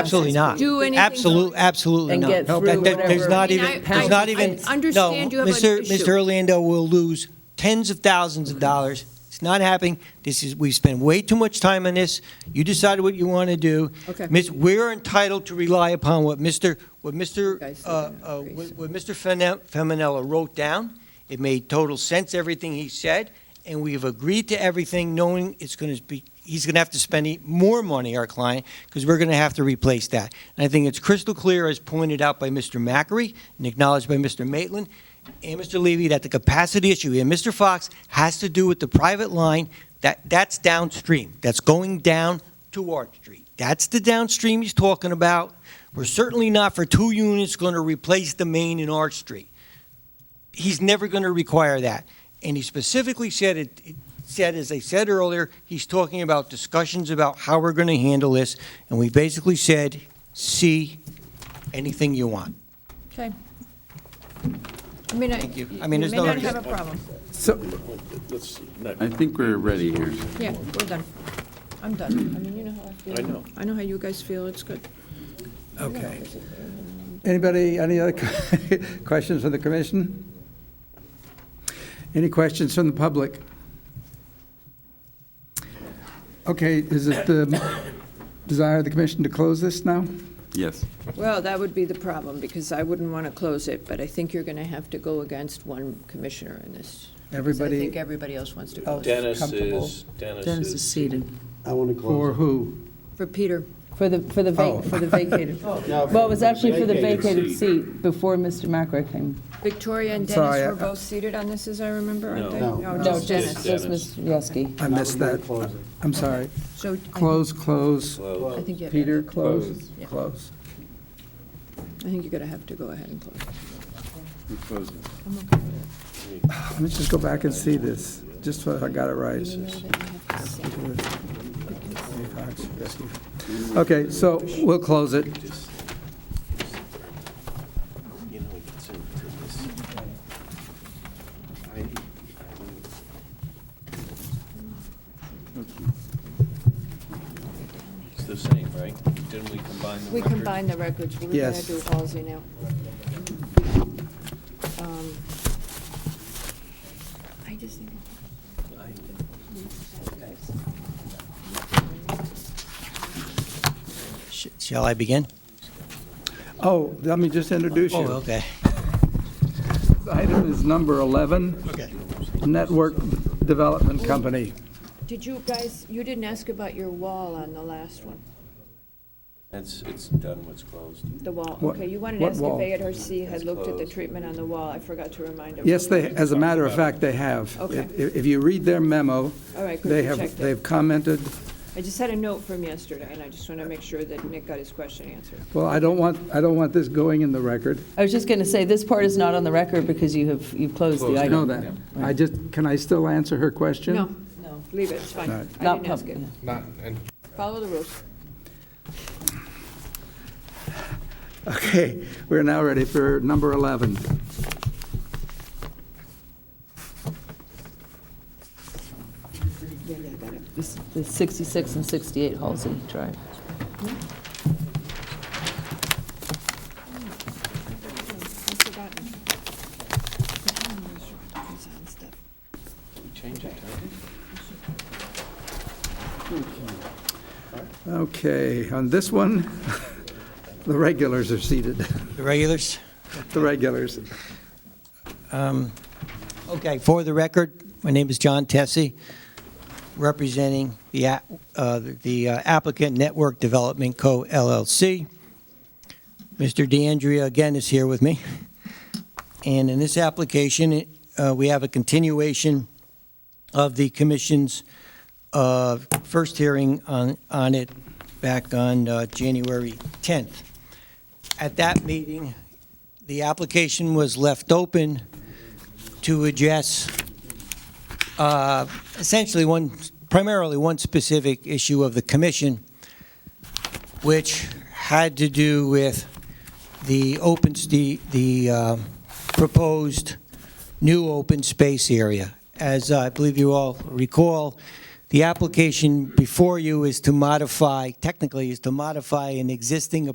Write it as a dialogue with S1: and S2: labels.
S1: Absolutely not.
S2: Do anything-
S1: Absolute, absolutely
S3: And
S1: not.
S3: get
S1: That-
S3: through
S1: that- There's
S3: whatever
S1: not
S2: I
S1: even,
S2: mean, I-
S1: there's not
S2: I-
S1: even.
S2: I understand
S1: no,
S2: you have an
S1: Mr.
S2: issue. Mm-hmm.
S1: Mr. Orlando will lose tens of thousands of dollars. It's not happening. This is, we've spent way too much time on this. You decide what you want to do.
S2: Okay.
S1: Miss, we're entitled to rely upon what Mr., what Mr.,
S2: Okay, so
S1: uh,
S2: then,
S1: uh,
S2: okay,
S1: what
S2: so-
S1: what Mr. Fene- Feminella wrote down. It made total sense, everything he said, and we've agreed to everything, knowing it's going to be, he's going to have to spend e- more money, our client, because we're going to have to replace that. And I think it's crystal clear, as pointed out by Mr. Macri and acknowledged by Mr. Maitland and Mr. Levy, that the capacity issue and Mr. Fox has to do with the private line. That, that's downstream. That's going down to Art Street. That's the downstream he's talking about. We're certainly not for two units going to replace the main in Arch Street. He's never going to require that. And he specifically said it, it said, as I said earlier, he's talking about discussions about how we're going to handle this. And we basically said, see anything you want.
S2: Okay. I mean, I,
S1: Thank you.
S2: you
S1: I
S2: may
S1: mean, there's no-
S2: not have a problem.
S4: Let's,
S5: I think we're ready here.
S2: Yeah, we're done. I'm done. I mean, you know how I feel.
S4: I know.
S2: I know how you guys feel. It's good.
S3: Okay.
S6: Anybody, any other questions from the commission? Any questions from the public? Okay, is it the desire of the commission to close this now?
S5: Yes.
S2: Well, that would be the problem, because I wouldn't want to close it, but I think you're going to have to go against one commissioner in this. 'cause I think
S6: Everybody
S2: everybody else wants to
S6: Oh.
S2: close it.
S4: Dennis
S6: comfortable.
S4: is, Dennis
S3: Dennis is
S4: is,
S3: seated.
S7: I want to
S6: for
S7: close.
S6: who?
S2: For Peter,
S3: For the, for the
S6: Oh.
S3: vac, for the vacated. Well, it was actually for the vacated seat before Mr. Macra came.
S2: Victoria and
S6: Sorry,
S2: Dennis
S6: I-
S2: were both seated on this, as I remember, aren't they?
S7: No. No.
S3: No,
S2: Oh, just
S3: Dennis,
S2: Dennis.
S3: just
S4: Dennis.
S3: Ms. Yosky.
S6: I missed
S7: I would
S6: that.
S7: close it.
S6: I'm sorry.
S2: So I-
S6: Close, close,
S4: well,
S2: I think you have, I
S6: Peter, close,
S2: Yeah.
S6: close.
S2: think you're going to have to go ahead and close.
S5: We close it.
S6: Let me just go back and see this, just so I got it right. Okay, so we'll close it.
S4: you know, it gets into this. It's the same, right? Didn't we combine the
S2: We
S4: records?
S2: combine the records. We're going to
S6: Yes.
S2: do Halsey now. Um, I just think.
S1: Sh- Shall I begin?
S6: Oh, let me just introduce
S1: Oh,
S6: you.
S1: okay.
S6: Item is number 11,
S1: Okay.
S6: Network Development Company.
S2: Did you guys, you didn't ask about your wall on the last one,
S4: It's, it's done, what's closed.
S2: the wall.
S6: What-
S2: Okay, you wanted to
S6: what
S2: ask if
S6: wall?
S2: ARC had looked at the
S4: closed.
S2: treatment on the wall. I forgot to remind them.
S6: Yes, they, as a matter of fact, they have.
S2: Okay.
S6: If if you read their memo,
S2: All right, good,
S6: they
S2: we
S6: have,
S2: checked it.
S6: they've commented,
S2: I just had a note from yesterday, and I just want to make sure that Nick got his question answered.
S6: well, I don't want, I don't want this going in the record.
S3: I was just going to say, this part is not on the record because you have, you've closed the
S6: I
S3: item.
S6: know that. I just, can I still answer her question?
S2: No, no, leave it, it's fine.
S6: All
S2: I
S6: right.
S2: didn't
S3: Not
S2: ask it.
S3: public.
S8: Not, and
S2: Follow the rules.
S6: Okay, we're now ready for number 11.
S3: It's the 66 and 68 Halsey Drive.
S2: I've forgotten.
S4: We change it, huh?
S6: Okay, on this one, the regulars are seated,
S1: The regulars?
S6: the regulars.
S1: Um, Okay, for the record, my name is John Tessie, representing the a- uh, the applicant Network Development Co. LLC. Mr. DeAndrea again is here with me. And in this application, uh, we have a continuation of the commission's uh, first hearing on on it back on uh, January 10th. At that meeting, the application was left open to address uh, essentially one, primarily one specific issue of the commission, which had to do with the open, s- the, the uh, proposed new open space area. As I believe you all recall, The application before you is to modify, technically is to modify an existing